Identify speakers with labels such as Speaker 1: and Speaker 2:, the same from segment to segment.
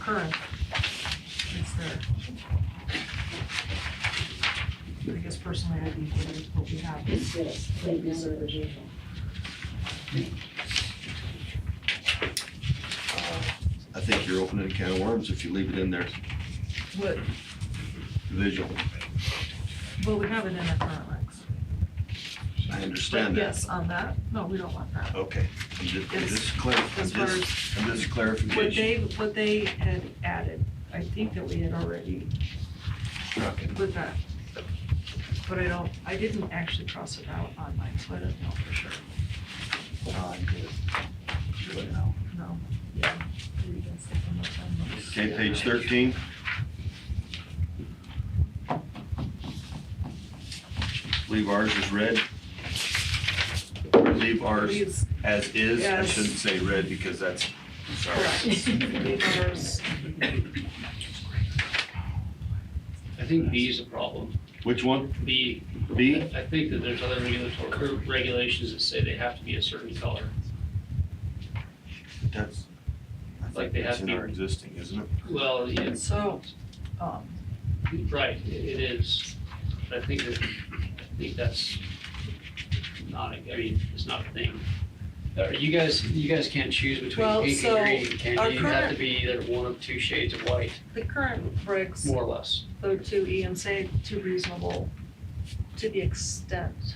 Speaker 1: current. It's there. I guess personally, I'd be for what we have.
Speaker 2: Yes, thank you, sir.
Speaker 3: I think you're opening a can of worms if you leave it in there,
Speaker 1: What,
Speaker 3: visual.
Speaker 1: well, we have it in our current regs.
Speaker 3: I
Speaker 1: But
Speaker 3: understand that.
Speaker 1: yes, on that, no, we don't want that.
Speaker 3: Okay, I'm just, I'm
Speaker 1: Yes.
Speaker 3: just clarif- I'm
Speaker 1: As far
Speaker 3: just, I'm just
Speaker 1: What
Speaker 3: clarification.
Speaker 1: they, what they had added, I think that we had already
Speaker 3: Okay.
Speaker 1: with that. But I don't, I didn't actually cross it out on mine, so I don't know for sure.
Speaker 3: No, I'm good. But no.
Speaker 1: No. Yeah.
Speaker 3: Okay, page thirteen. Leave ours as red. Leave ours
Speaker 1: Please,
Speaker 3: as is. I
Speaker 1: Yes.
Speaker 3: shouldn't say red because that's, sorry.
Speaker 1: correct. Neighbors,
Speaker 4: I think B is a problem.
Speaker 3: Which one?
Speaker 4: B,
Speaker 3: B?
Speaker 4: I think that there's other regulatory cur- regulations that say they have to be a certain color.
Speaker 3: That's, I
Speaker 4: Like
Speaker 3: think
Speaker 4: they
Speaker 3: that's
Speaker 4: have
Speaker 3: in
Speaker 4: to-
Speaker 3: our existing, isn't it?
Speaker 4: Well, it's,
Speaker 1: So, um,
Speaker 4: right, it it is. But I think that, I think that's not, a- I mean, it's not a thing. Uh, You guys, you guys can't choose
Speaker 1: Well,
Speaker 4: between pink
Speaker 1: so
Speaker 4: and green,
Speaker 1: our
Speaker 4: can you? You have
Speaker 1: current-
Speaker 4: to be either one of two shades of white,
Speaker 1: the current regs,
Speaker 4: more or less.
Speaker 1: though, to E and say to reasonable, to the extent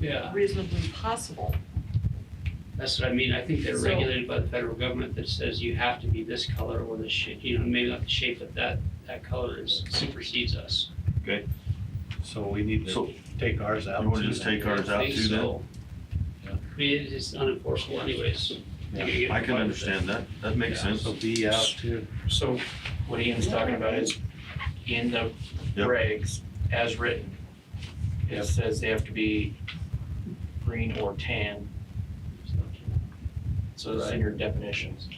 Speaker 4: Yeah.
Speaker 1: reasonably possible.
Speaker 4: That's what I mean. I think they're
Speaker 1: So-
Speaker 4: regulated by the federal government that says you have to be this color or this shape, you know, maybe not the shape, but that, that color is supersedes us.
Speaker 5: So we need
Speaker 3: So-
Speaker 5: to take ours out.
Speaker 3: You wanna
Speaker 5: too
Speaker 3: just
Speaker 5: then?
Speaker 3: take ours out
Speaker 4: think
Speaker 3: too then?
Speaker 4: so. I mean, it's unenforceable anyways. They're gonna get
Speaker 3: I can
Speaker 4: fined.
Speaker 3: understand that. That makes sense.
Speaker 5: So B out too.
Speaker 6: So what Ian's talking about is in the
Speaker 3: Yep.
Speaker 6: regs as written. It
Speaker 5: Yep.
Speaker 6: says they have to be green or tan, so it's in your definitions.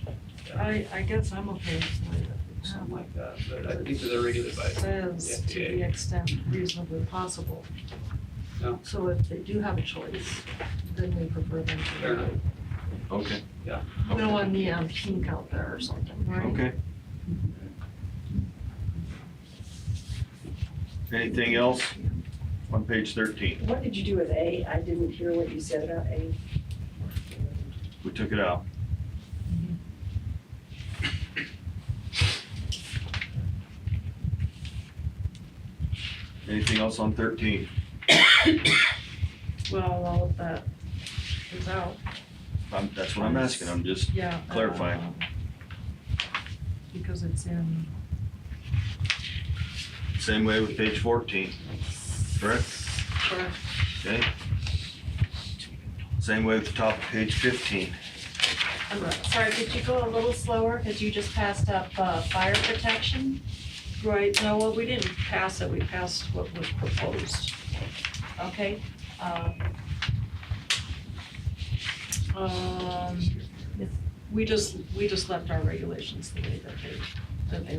Speaker 1: I, I guess I'm okay with the way that.
Speaker 4: Something like that, but I think that they're regulated by,
Speaker 1: says to the extent reasonably possible.
Speaker 4: No.
Speaker 1: So if they do have a choice, then we prefer them
Speaker 4: Fair enough.
Speaker 1: to.
Speaker 3: Okay.
Speaker 4: Yeah.
Speaker 1: We don't
Speaker 3: Okay.
Speaker 1: want neon pink out there or something, right?
Speaker 3: Okay. Anything else on page thirteen?
Speaker 2: What did you do with A? I didn't hear what you said about A.
Speaker 3: We took it out. Anything else on thirteen?
Speaker 1: Well, all of that is out,
Speaker 3: I'm, that's what I'm asking. I'm just,
Speaker 1: yeah.
Speaker 3: Clarify.
Speaker 1: um, Because it's in.
Speaker 3: same way with page fourteen, correct?
Speaker 1: correct.
Speaker 3: Okay? Same way with the top of page fifteen.
Speaker 7: I'm sorry, could you go a little slower, because you just passed up uh, fire protection?
Speaker 1: Right, no, well, we didn't pass it, we passed what was proposed.
Speaker 7: Okay, uh,
Speaker 1: Um, we just, we just left our regulations the way that they, that they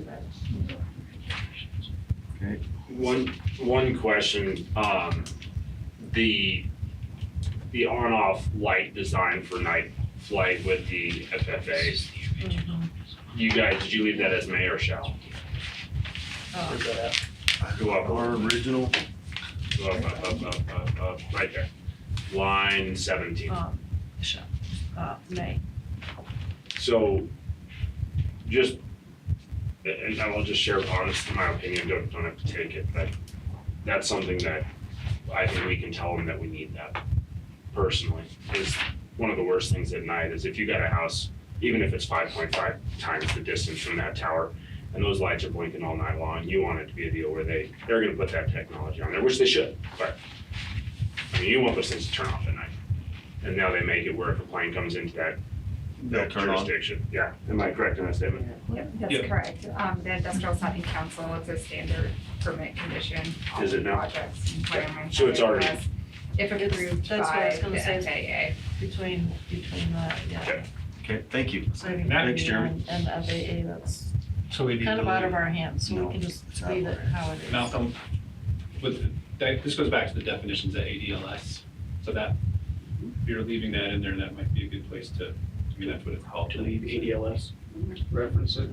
Speaker 1: read.
Speaker 8: One, one question, um, the, the on-off light design for night flight with the
Speaker 6: Oh.
Speaker 8: FFA, you guys, did you leave that as may or shall?
Speaker 1: Uh,
Speaker 4: Is that out?
Speaker 8: Go up,
Speaker 3: Our original,
Speaker 8: go up, up, up, up, up, up, right there, line seventeen.
Speaker 1: um, sh- uh, May.
Speaker 8: So, just, and I will just share honestly my opinion, don't, don't have to take it, but that's something that I think we can tell them that we need that personally. Is one of the worst things at night is if you got a house, even if it's five point five times the distance from that tower, and those lights are blinking all night long, you want it to be a deal where they, they're gonna put that technology on there, which they should, but I mean, you want those things to turn off at night. And now they make it where if a plane comes into that
Speaker 3: They'll turn on.
Speaker 8: jurisdiction. Yeah, am I correct in that statement?
Speaker 9: Yep, that's correct. Um, the industrial setting council, it's a standard permit condition on
Speaker 8: Is it now?
Speaker 9: projects and requirements.
Speaker 8: So it's
Speaker 9: that it
Speaker 8: already-
Speaker 9: has, If approved
Speaker 1: That's what I
Speaker 9: by
Speaker 1: was gonna
Speaker 9: the
Speaker 1: say.
Speaker 9: FAA.
Speaker 1: Between, between that, yeah.
Speaker 8: Okay.
Speaker 3: okay, thank you.
Speaker 1: Saving
Speaker 3: Thanks,
Speaker 1: Committee
Speaker 3: Jeremy.
Speaker 1: and- And FAA, that's
Speaker 5: So we need to.
Speaker 1: kind of out of
Speaker 5: leave-
Speaker 1: our hands, so
Speaker 3: No,
Speaker 1: we can just
Speaker 3: it's out of
Speaker 1: leave
Speaker 3: our
Speaker 1: it how it is.
Speaker 10: Malcolm, with, that, this goes back to the definitions at ADLS, so that, if you're leaving that in there, that might be a good place to, I mean, that's what it's called.
Speaker 4: To leave ADLS, reference it.